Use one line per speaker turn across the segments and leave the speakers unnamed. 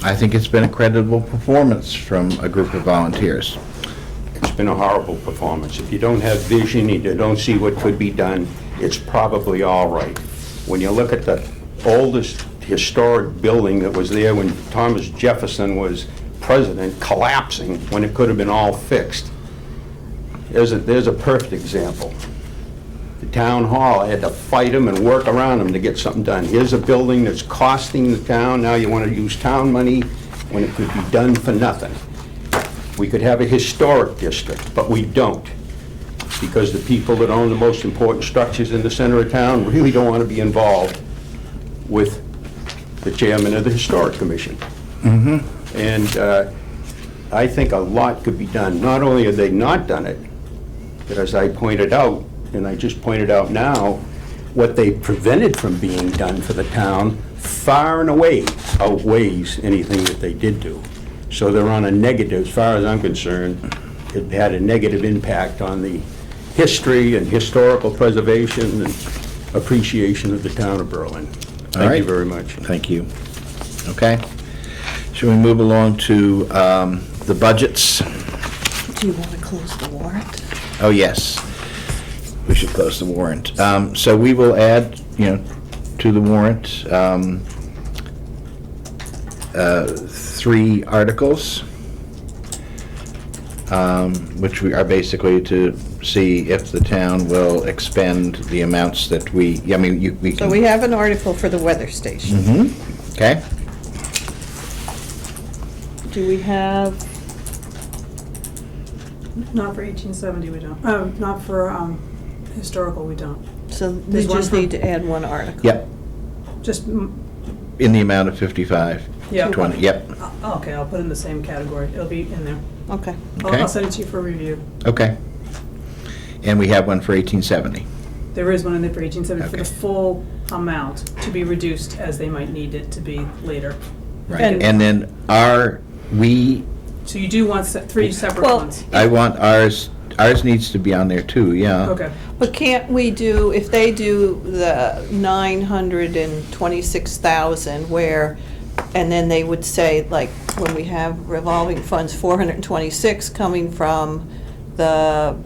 I think it's been a creditable performance from a group of volunteers.
It's been a horrible performance. If you don't have vision, and you don't see what could be done, it's probably all right. When you look at the oldest historic building that was there when Thomas Jefferson was president, collapsing when it could have been all fixed, there's a, there's a perfect example. The town hall, I had to fight them and work around them to get something done. Here's a building that's costing the town, now you want to use town money when it could be done for nothing. We could have a historic district, but we don't, because the people that own the most important structures in the center of town really don't want to be involved with the chairman of the Historic Commission.
Mm-hmm.
And uh, I think a lot could be done. Not only have they not done it, but as I pointed out, and I just pointed out now, what they prevented from being done for the town far and away outweighs anything that they did do. So they're on a negative, as far as I'm concerned, it had a negative impact on the history and historical preservation and appreciation of the town of Berlin.
All
Thank
right.
you very much.
Thank you. Okay? Should we move along to um, the budgets?
Do you want to close the warrant?
Oh, yes. We should close the warrant. Um, So we will add, you know, to the warrant, um, uh, three articles, um, which we are basically to see if the town will expend the amounts that we, I mean, you, we
So
can...
we have an article for the weather station.
Hmm? Okay?
Do we have,
Not for eighteen seventy, we don't, oh, not for, um, historical, we don't.
so we
There's one
just
for-
need to add one article.
Yep,
Just, mm,
in the amount of 55.
Yeah.
20, yep,
oh, okay, I'll put it in the same category, it'll be in there.
Okay.
I'll-
Okay.
I'll send it to you for review.
okay. And we have one for 1870.
There is one in there for eighteen seventy for the
Okay.
full amount, to be reduced as they might need it to be later.
Right,
And-
and then are, we,
So you do want se- three separate
Well-
ones?
I want ours, ours needs to be on there too, yeah.
Okay,
But can't we do, if they do the nine hundred and twenty-six thousand where, and then they would say, like, when we have revolving funds, four hundred and twenty-six coming from the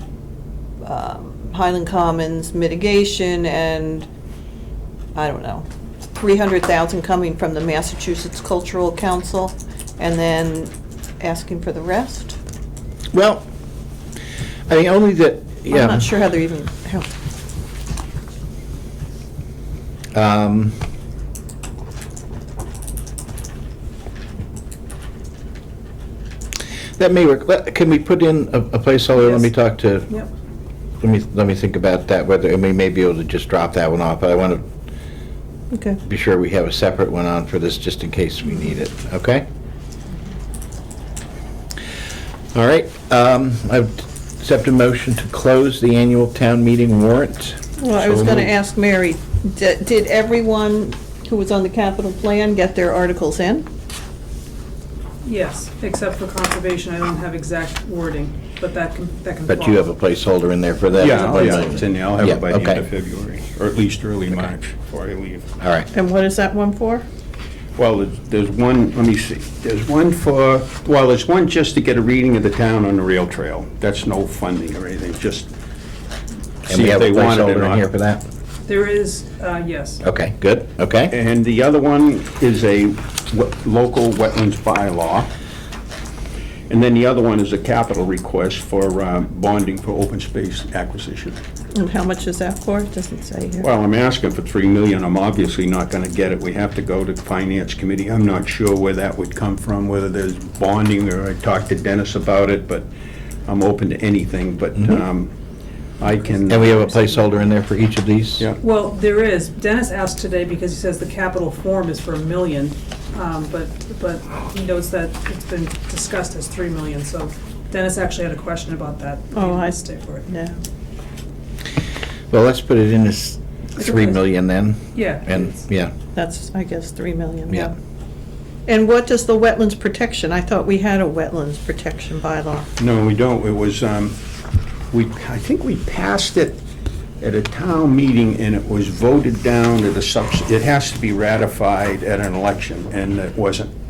um, Highland Commons mitigation and, I don't know, three hundred thousand coming from the Massachusetts Cultural Council, and then asking for the rest?
Well, I mean, only that, yeah.
I'm not sure how they're even, how-
Um, That may work, Let- can we put in a a placeholder, let me
Yes.
talk to,
yep.
let me, let me think about that, whether, and we may be able to just drop that one off, but I want to
okay.
be sure we have a separate one on for this, just in case we need it, okay? All right, um, I accept a motion to close the annual town meeting warrant.
Well, I
So
was going to
moved.
ask Mary, di- did everyone who was on the capital plan get their articles in?
Yes, except for conservation, I don't have exact wording, but that can, that can follow.
But you have a placeholder in there for that.
Yeah, oh,
One
yeah,
million.
it's in there. I'll have
oh, Yeah,
it by the end
okay.
of February, or at least early March, before I leave.
All right,
And what is that one for?
Well, there's- there's one, let me see, there's one for, well, there's one just to get a reading of the town on the rail trail. That's no funding or anything, just
and
see
we
if
have a
they want it or
placeholder in here for
not.
that?
There is, uh, yes.
Okay, good, okay.
And the other one is a wet- local wetlands bylaw. And then the other one is a capital request for um, bonding for open space acquisition.
And how much is that for? It doesn't say here.
Well, I'm asking for 3 million, I'm obviously not going to get it. We have to go to the Finance Committee. I'm not sure where that would come from, whether there's bonding, or I talked to Dennis about it, but I'm open to anything, but um, I can...
Mm-hmm. And we have a placeholder in there for each of these?
Yeah.
Well, there is. Dennis asked today because he says the capital form is for a million, um, but, but he notes that it's been discussed as three million, so Dennis actually had a question about that.
Oh, I-
Stay for it.
No.
Well, let's put it in as 3
Okay.
million then,
Yeah.
and,
it's-
yeah,
That's, I guess, 3 million.
yeah.
And what does the wetlands protection, I thought we had a wetlands protection bylaw.
No, we don't. It was, um, we, I think we passed it at a town meeting, and it was voted down at a subs, it has to be ratified at an election, and it wasn't.